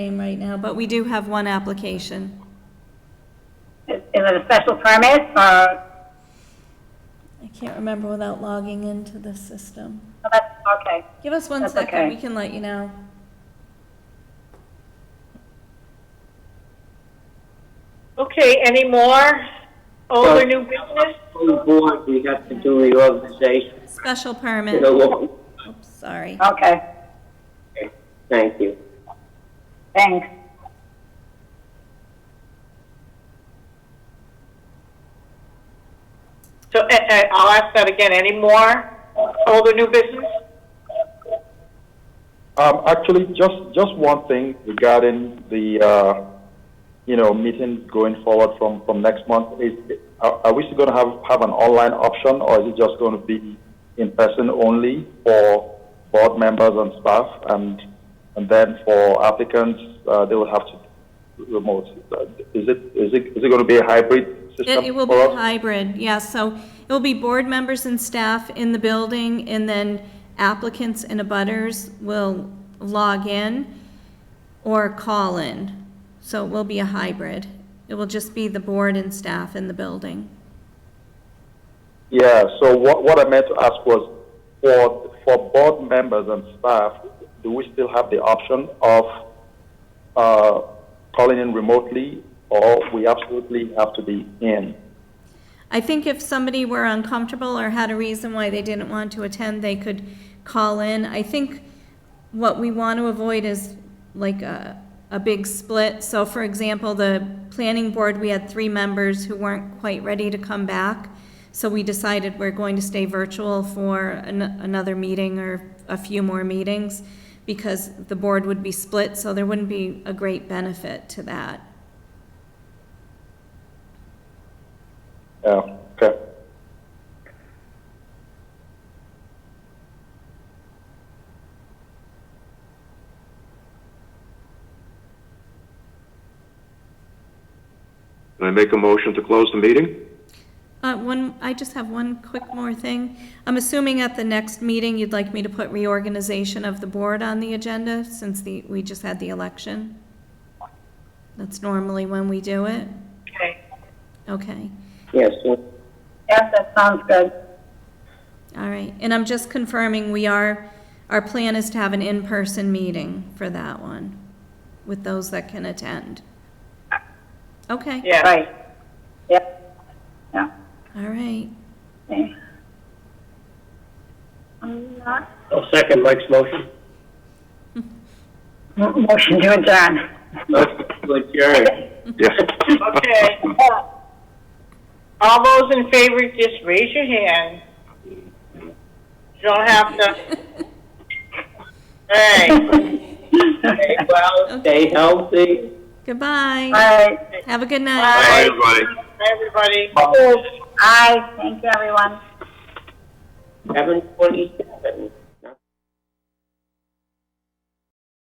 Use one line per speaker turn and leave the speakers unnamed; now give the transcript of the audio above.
name right now, but we do have one application.
Is is it a special permit uh, or,
I can't remember without logging into the system.
oh, that's- okay.
Give us one
That's
second,
okay.
we can let you know.
Okay, any more? Old or
Well-
new business?
full board, we have to do reorganization.
Special
You
permit,
know, what-
oops, sorry.
Okay,
Thank you.
thanks.
So, eh, eh, I'll ask that again, any more? Old or new business?
Um, actually, just, just one thing regarding the, uh, you know, meeting going forward from, from next month. Is, are, are we still going to have, have an online option or is it just going to be in person only for board members and staff? And, and then for applicants, uh, they will have to remote. Uh, Is it, is it, is it going to be a hybrid
It
system?
it will be
for us?
hybrid, yeah, so it will be board members and staff in the building, and then applicants and abutters will log in or call in. So it will be a hybrid. It will just be the board and staff in the building.
Yeah, so what, what I meant to ask was, for, for board members and staff, do we still have the option of uh, calling in remotely, or we absolutely have to be in?
I think if somebody were uncomfortable or had a reason why they didn't want to attend, they could call in. I think what we want to avoid is like a, a big split. So for example, the planning board, we had three members who weren't quite ready to come back. So we decided we're going to stay virtual for an, another meeting or a few more meetings because the board would be split, so there wouldn't be a great benefit to that.
Yeah, Uh, okay.
Can I make a motion to close the meeting?
Uh, One, I just have one quick more thing. I'm assuming at the next meeting, you'd like me to put reorganization of the board on the agenda since the, we just had the election? That's normally when we do it?
Okay.
Okay,
Yes, so
Yes, that sounds good.
all right. And I'm just confirming, we are, our plan is to have an in-person meeting for that one with those that can attend. Okay,
Yeah.
Right. Yep. Yeah.
all right.
Okay. I'm not-
I'll second Mike's motion.
M- Motion to adjourn.
Motion to adjourn.
Yes.
Okay. All those in favor, just raise your hand. You don't have to. All right,
Stay well, stay healthy.
Goodbye.
All
Have a good night.
Bye.
Bye, everybody.
everybody.
right. Aye, thank you, everyone.
Seven twenty-seven.